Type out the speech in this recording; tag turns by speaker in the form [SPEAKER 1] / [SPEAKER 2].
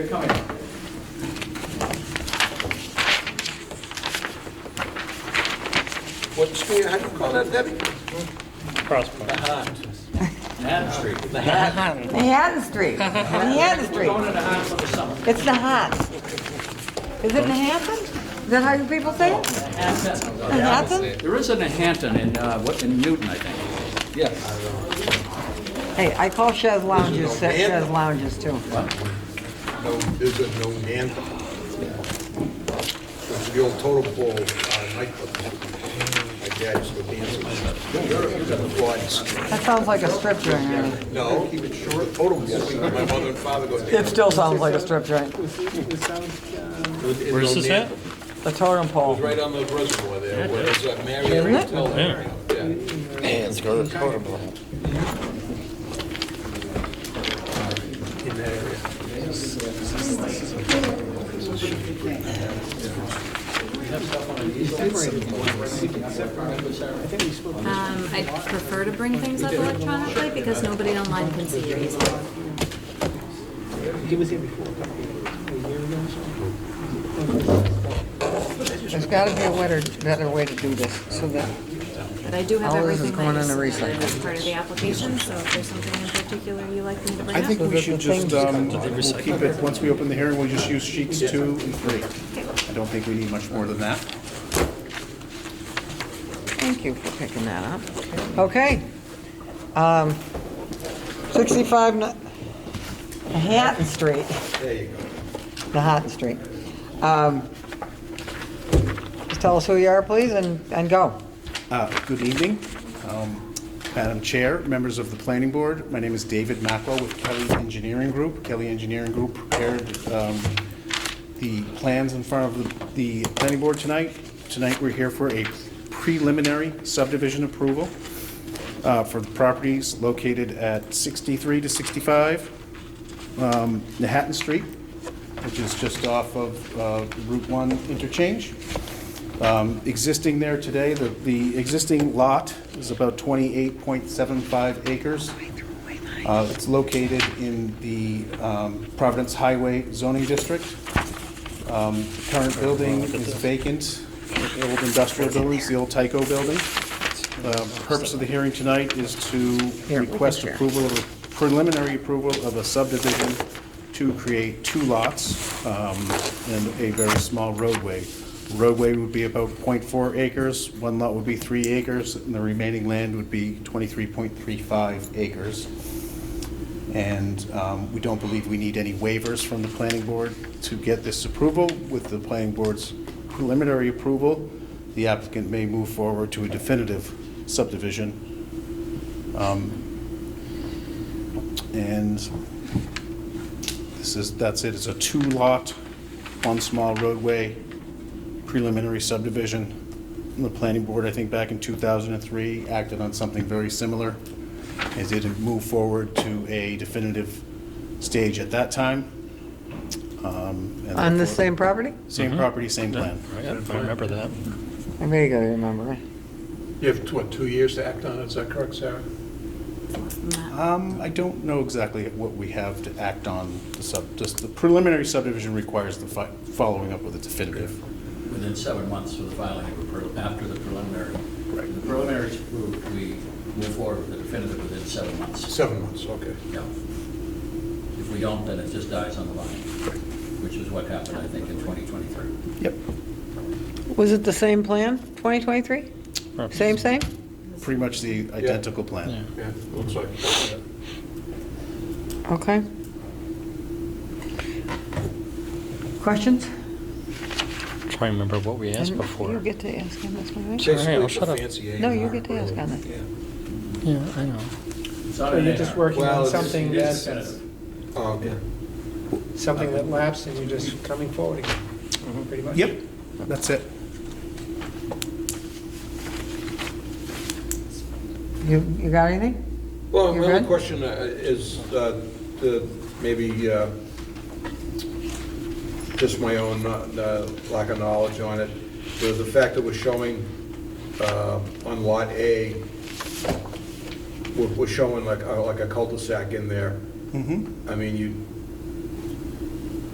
[SPEAKER 1] They're coming.
[SPEAKER 2] What street, how do you call that, Debbie?
[SPEAKER 3] Crosspoint.
[SPEAKER 1] Manhattan Street.
[SPEAKER 2] The hat.
[SPEAKER 4] Manhattan Street, Manhattan
[SPEAKER 1] We're going
[SPEAKER 4] Street.
[SPEAKER 1] to Manhattan for the summer.
[SPEAKER 4] It's the hat. Is it Manhattan? Is that how you people say it?
[SPEAKER 1] Manhattan.
[SPEAKER 4] Manhattan?
[SPEAKER 1] There is a Manhattan in, uh, what, in Newton, I think.
[SPEAKER 2] Uh,
[SPEAKER 1] Yes.
[SPEAKER 4] Hey, I call Chaise Lounges, Cha- Chaise Lounges too.
[SPEAKER 2] No, there's a no anthem. It's the old total ball uh, nightclub. My dad used to dance with quads.
[SPEAKER 4] That sounds like a strip joint, right?
[SPEAKER 2] No, keep it short, total ball. My mother and father go
[SPEAKER 4] It
[SPEAKER 2] dance.
[SPEAKER 4] still sounds like a strip joint.
[SPEAKER 3] Where's this at?
[SPEAKER 4] The totem pole.
[SPEAKER 2] Right on the reservoir there, where it's uh, Marriott
[SPEAKER 4] Really?
[SPEAKER 2] Hotel. there. Yeah.
[SPEAKER 5] Yeah, let's go to the totem pole.
[SPEAKER 6] Um, I prefer to bring things up electronically because nobody online can see your easel.
[SPEAKER 7] He was here before, a couple of years, a year ago or so.
[SPEAKER 4] There's gotta be a better, better way to do this, so that,
[SPEAKER 6] But I do have
[SPEAKER 4] All this is
[SPEAKER 6] everything
[SPEAKER 4] going
[SPEAKER 6] that
[SPEAKER 4] in
[SPEAKER 6] is
[SPEAKER 4] the recycle.
[SPEAKER 6] submitted as part of the application, so if there's something in particular you'd like me to bring
[SPEAKER 5] I
[SPEAKER 6] up.
[SPEAKER 5] think we should just, um, we'll keep it, once we open the hearing, we'll just use sheets two and three. I don't think we need much more than that.
[SPEAKER 4] thank you for picking that up. Okay. Um, 65 Na- Manhattan Street.
[SPEAKER 2] There you go.
[SPEAKER 4] Manhattan Street. Um, Just tell us who you are, please, and, and go.
[SPEAKER 5] Uh, Good evening, um, Madam Chair, members of the Planning Board. My name is David Mackwell with Kelly Engineering Group. Kelly Engineering Group prepared um, the plans in front of the the Planning Board tonight. Tonight, we're here for a preliminary subdivision approval uh, for the properties located at 63 to 65 um, Manhattan Street, which is just off of uh, Route 1 interchange um, existing there today, the, the existing lot is about 28.75 acres. Uh, It's located in the um, Providence Highway zoning district. Um, the Current building is vacant, the old industrial buildings, the old Tyco building. Um, The purpose of the hearing tonight is to
[SPEAKER 4] Here, we can
[SPEAKER 5] request
[SPEAKER 4] share.
[SPEAKER 5] approval, of a- preliminary approval of a subdivision to create two lots um, and a very small roadway. Roadway would be about .4 acres, one lot would be 3 acres, and the remaining land would be 23.35 acres. And um, we don't believe we need any waivers from the planning board to get this approval. With the planning board's preliminary approval, the applicant may move forward to a definitive subdivision. Um, And this is, that's it, it's a two-lot, one small roadway preliminary subdivision. And The planning board, I think back in 2003, acted on something very similar. It did move forward to a definitive stage at that time. Um, and
[SPEAKER 4] On the
[SPEAKER 5] therefore-
[SPEAKER 4] same property?
[SPEAKER 5] Same property, same plan.
[SPEAKER 3] I remember that.
[SPEAKER 4] I may go remember.
[SPEAKER 2] You have, what, two years to act on it, is that correct, Sarah?
[SPEAKER 5] Um, I don't know exactly what we have to act on, the sub, just the preliminary subdivision requires the fi- following up with a definitive.
[SPEAKER 8] within seven months of the filing of a pre- after the preliminary.
[SPEAKER 5] Right.
[SPEAKER 8] The preliminary is approved, we move forward with the definitive within seven months.
[SPEAKER 2] Seven months, okay.
[SPEAKER 8] Yeah. If we don't, then it just dies on the vine, which is what happened, I think, in 2023.
[SPEAKER 5] Yep.
[SPEAKER 4] Was it the same plan, 2023? Same, same?
[SPEAKER 5] Pretty much the identical plan.
[SPEAKER 2] Yeah, looks like. yeah.
[SPEAKER 4] Okay. Questions?
[SPEAKER 3] Trying to remember what we asked
[SPEAKER 4] You
[SPEAKER 3] before.
[SPEAKER 4] get to ask him this one, right?
[SPEAKER 2] Basically,
[SPEAKER 3] I'll
[SPEAKER 2] it's a
[SPEAKER 3] shut up.
[SPEAKER 2] fancy
[SPEAKER 4] No, you
[SPEAKER 2] A&R
[SPEAKER 4] get to ask on that.
[SPEAKER 2] Yeah.
[SPEAKER 3] Yeah, I know.
[SPEAKER 8] It's not
[SPEAKER 7] So
[SPEAKER 8] an
[SPEAKER 7] you're just
[SPEAKER 8] A&R.
[SPEAKER 7] working
[SPEAKER 2] Well,
[SPEAKER 7] on
[SPEAKER 2] it's-
[SPEAKER 7] something
[SPEAKER 8] It is
[SPEAKER 7] that's,
[SPEAKER 8] definitive.
[SPEAKER 2] Um,
[SPEAKER 7] something that lapsed and you're just coming forward again, pretty much.
[SPEAKER 5] Yep, that's it.
[SPEAKER 4] You, you got anything?
[SPEAKER 2] Well,
[SPEAKER 4] You
[SPEAKER 2] my other
[SPEAKER 4] good?
[SPEAKER 2] question uh, is, uh, the- maybe, uh, just my own uh, lack of knowledge on it, the the fact that we're showing uh, on Lot A, uh, we're- we're showing like, a- like a cul-de-sac in there. I mean, you,